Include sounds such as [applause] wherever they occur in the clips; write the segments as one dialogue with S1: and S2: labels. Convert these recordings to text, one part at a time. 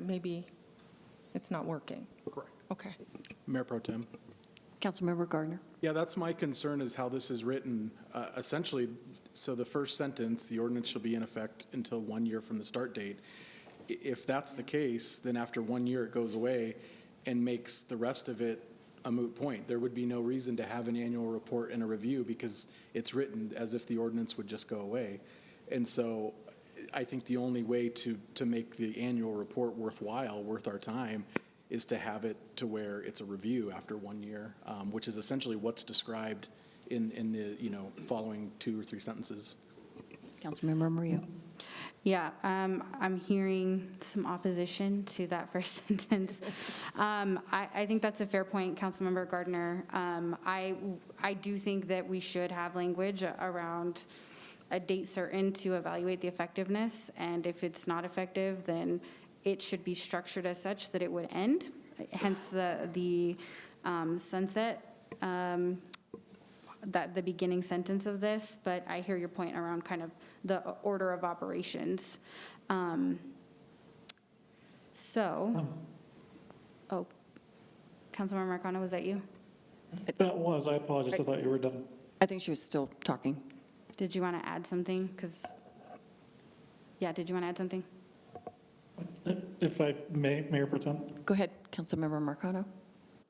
S1: Maybe it's not working.
S2: Correct.
S1: Okay.
S2: Mayor Pro Tem.
S3: Councilmember Gardner.
S2: Yeah, that's my concern is how this is written. Uh, Essentially, so the first sentence, the ordinance shall be in effect until one year from the start date. I- If that's the case, then after one year, it goes away and makes the rest of it a moot point. There would be no reason to have an annual report and a review because it's written as if the ordinance would just go away. And so I think the only way to, to make the annual report worthwhile, worth our time, is to have it to where it's a review after one year, um, which is essentially what's described in, in the, you know, following two or three sentences.
S3: Councilmember Mario.
S4: Yeah, um, I'm hearing some opposition to that [laughs] first sentence. Um, I, I think that's a fair point, Councilmember Gardner. Um, I, I do think that we should have language around a date certain to evaluate the effectiveness, and if it's not effective, then it should be structured as such that it would end, hence the, the um, sunset um, that, the beginning sentence of this, but I hear your point around kind of the order of operations. Um, So, oh, Councilmember Marcano, was that you?
S5: That was, I apologize, I thought you were done.
S3: I think she was still talking.
S4: Did you want to add something? Because, yeah, did you want to add something?
S5: If I may, Mayor Protem?
S3: Go ahead, Councilmember Marcano.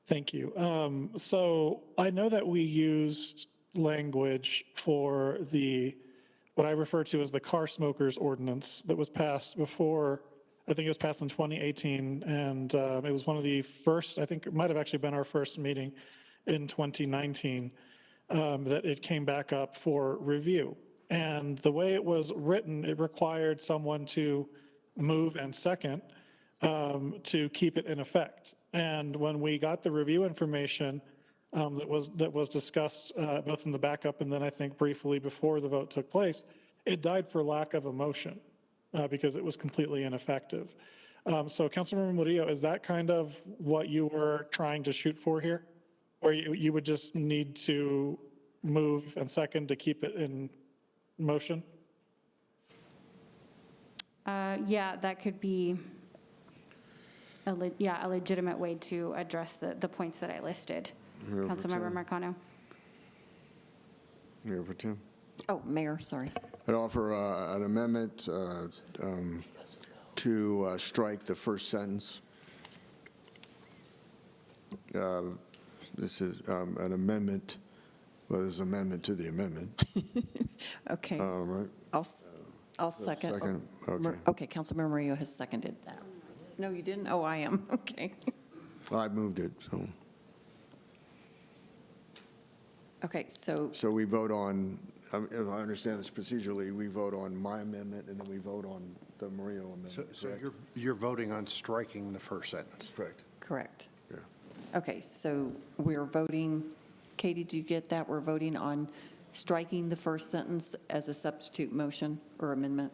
S5: Thank you. Um, So I know that we used language for the, what I refer to as the car smokers ordinance that was passed before, I think it was passed in 2018, and um, it was one of the first, I think it might have actually been our first meeting in 2019, um, that it came back up for review. And the way it was written, it required someone to move and second, um, to keep it in effect. And when we got the review information um, that was that was discussed uh, both in the backup and then I think briefly before the vote took place, it died for lack of a motion uh, because it was completely ineffective. Um, so, Councilmember Murillo, is that kind of what you were trying to shoot for here, or you, you would just need to move and second to keep it in motion?
S4: Uh, Yeah, that could be, a le- yeah, a legitimate way to address the, the points that I listed. Councilmember Marcano?
S6: Mayor Pro Tem.
S3: Oh, Mayor, sorry.
S6: I'd offer uh, an amendment uh, um, to uh, strike the first sentence. Uh, This is um, an amendment, well, this is amendment to the
S3: [laughs]
S6: amendment,
S3: Okay,
S6: uh, right?
S3: I'll, s- I'll second.
S6: second,
S3: Oh, Mar-
S6: okay.
S3: Okay, Councilmember Mario has seconded that. No, you didn't? Oh, I am, [laughs] okay.
S6: I moved it, so,
S3: Okay, so,
S6: so we vote on, um, if I understand this procedurally, we vote on my amendment, and then we vote on the Mario
S7: So,
S6: amendment,
S7: so
S6: correct?
S7: you're, you're voting on striking the first sentence?
S6: Correct,
S3: correct.
S6: yeah.
S3: Okay, so we're voting, Katie, do you get that? We're voting on striking the first sentence as a substitute motion or amendment?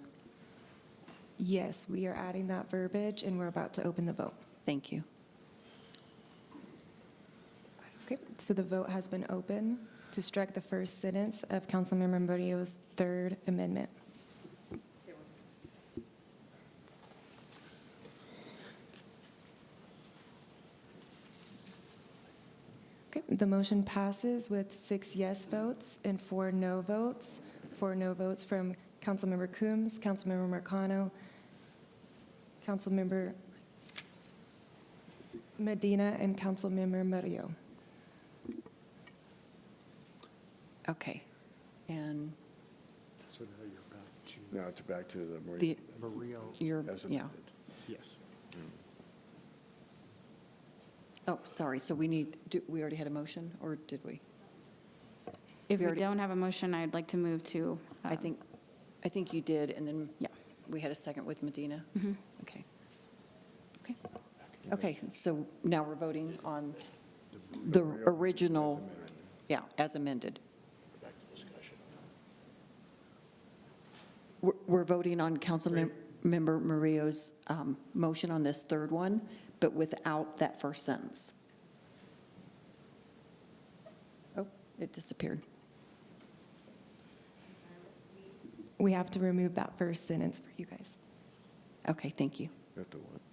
S8: Yes, we are adding that verbiage, and we're about to open the vote.
S3: Thank you.
S8: Okay, so the vote has been open to strike the first sentence of Councilmember Murillo's third amendment. Okay, the motion passes with six yes votes and four no votes. Four no votes from Councilmember Coombs, Councilmember Marcano, Councilmember Medina, and Councilmember Murillo.
S3: Okay. And
S7: So now you're
S6: Now it's back to the Mario.
S3: the,
S7: back to Maria.
S3: your,
S6: as
S3: yeah.
S6: amended.
S7: Yes.
S3: Oh, sorry, so we need, do- we already had a motion, or did we?
S4: If
S3: We
S4: we
S3: already-
S4: don't have a motion, I'd like to move to.
S3: I
S4: um,
S3: think, I think you did, and then
S4: Yeah.
S3: we had a second with Medina? Okay. Okay. Okay, so now we're voting on the original, yeah, as amended. We're- We're voting on Councilmember Mario's um, motion on this third one, but without that first sentence. Oh, it disappeared.
S8: We have to remove that first sentence for you guys.
S3: Okay, thank you.
S6: That's the one.